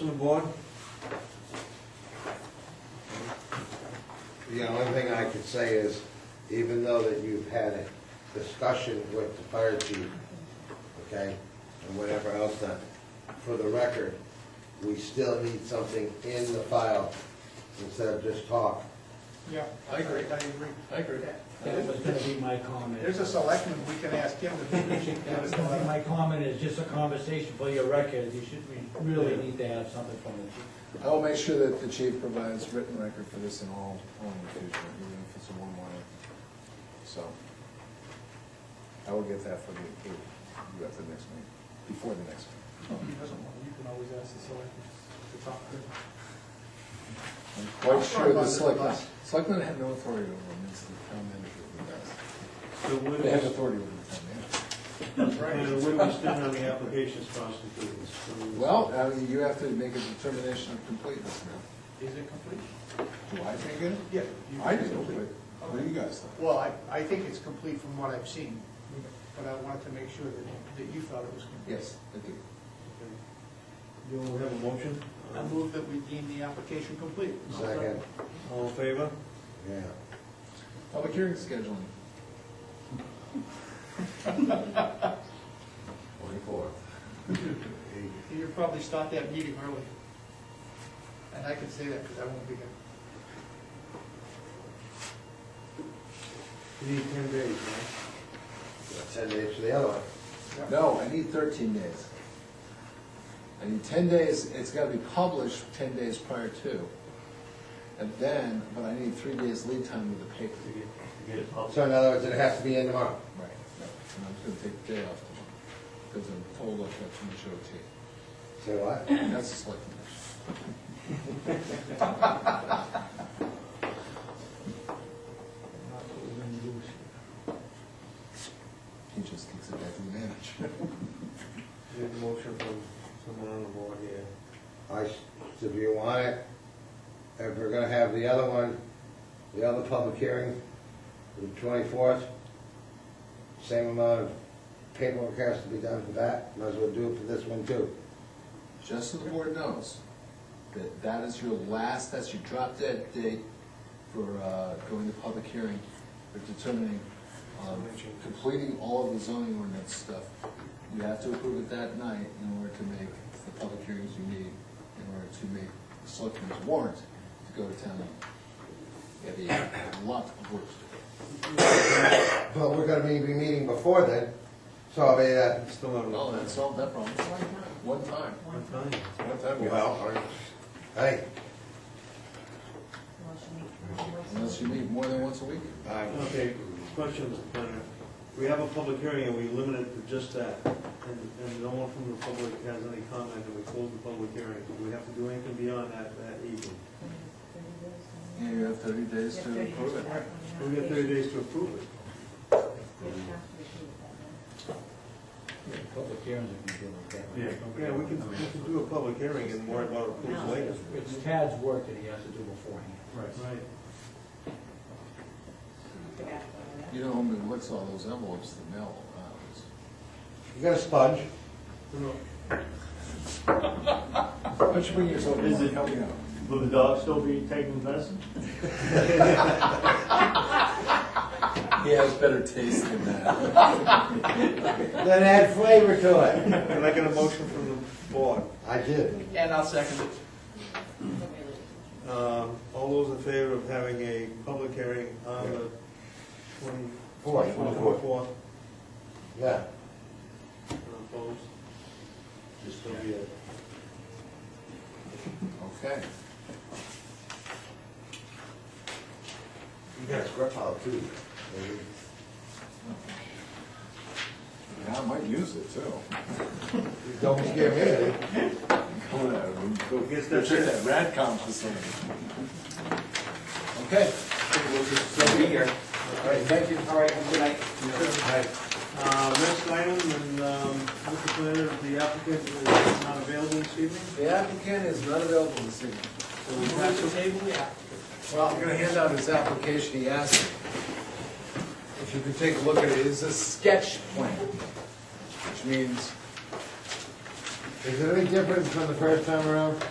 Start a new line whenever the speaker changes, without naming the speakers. From the board?
The only thing I could say is, even though that you've had a discussion with the fire chief, okay, and whatever else that, for the record, we still need something in the file instead of just talk.
Yeah, I agree, I agree.
I agree.
Uh,
That was gonna be my comment.
There's a selectman, we can ask him to be the chief.
That was gonna be my comment, is just a conversation for your record, you should, we really need to have something from the chief.
I will make sure that the chief provides written record for this in all, all in the future, even if it's a one line. So, I will get that for the, for you at the next meeting, before the next meeting.
If he doesn't want, you can always ask the selectman to talk to him.
I'm
I'm
quite
sorry
sure
about
the
this,
selectmen,
boss.
selectmen have no authority over them, it's the town manager who
So what
does. They have
is,
authority over the town manager.
and what is done on the applications constituted?
Well, I mean, you have to make a determination of completeness now.
Is it complete?
Do I think it?
Yeah. you-
I do, but what do you guys think?
Well, I, I think it's complete from what I've seen, but I wanted to make sure that, that you thought it was complete.
Yes, I do.
Do we have a motion? Uh,
I move that we deem the application complete.
Second,
All in favor?
yeah.
Public hearing scheduling.
Twenty-four.
You'll probably start that meeting early. And I can say that because I won't be here.
You need ten days, right?
Ten days for the other one.
No, I need thirteen days. I need ten days, it's gotta be published ten days prior to. And then, but I need three days lead time with the paper.
To get, to get it published.
So in other words, it has to be in tomorrow.
Right. And I'm just gonna take the day off tomorrow, because I'm told I've got too much OT.
Say what?
That's a select commission.
That's what we're gonna do.
He just kicks it back to the manager.
Get a motion from someone on the board here.
I, s- if you want it, if we're gonna have the other one, the other public hearing, the twenty-fourth, same amount of paperwork has to be done for that, might as well do it for this one too.
Just so the board knows, that that is your last, that's your drop dead date for uh, going to public hearing, for determining, um, completing all of the zoning ordinance stuff. You have to approve it that night in order to make the public hearings you need, in order to make the selectmen's warrant to go to town. meeting. You have a lot of work to
But we're gonna be, be meeting before then, so I mean, uh,
It's still out
do.
of.
Well, that solved that problem. One time.
One time.
One time.
well, hey,
Unless you meet more than once a week.
I,
Okay, question, Mr. Planner. We have a public hearing and we limit it to just that. And, and no one from the public has any comment and we close the public hearing. Do we have to do anything beyond that, that evening?
Yeah, you have thirty days to approve it.
We have thirty days to approve it.
Yeah, Public hearings are gonna deal with that.
Yeah, we can, we can do a public hearing and worry about approval later.
It's Tad's work that he has to do beforehand.
Right.
You know, who what's all those envelopes, the mail, uh,
you got a sponge?
Why don't you bring yourself
Is
along,
it-
help me out?
Will the dog still be taking medicine?
He has better taste than that.
Then add flavor to it.
Can I get a motion from the board?
I did.
And I'll second it.
Um, All those in favor of having a public hearing on the twenty-
Four.
24th?
Yeah,
And Opposed? This will be a
Okay.
you got a script out too. baby.
Yeah, I might use it too.
You Don't scare me.
Go there, go,
Guess
go
that's
check
it.
that Radcom facility. Okay.
They'll be here.
All right, thank you.
All right, have a good night.
Uh, Next item, and um, Mr. Planner, the applicant is not available this evening,
The applicant is not available this evening.
so we have to table it.
Well, I'm gonna hand out his application, he asked if you could take a look at it, it's a sketch plan, which means Is it any different from the first time around?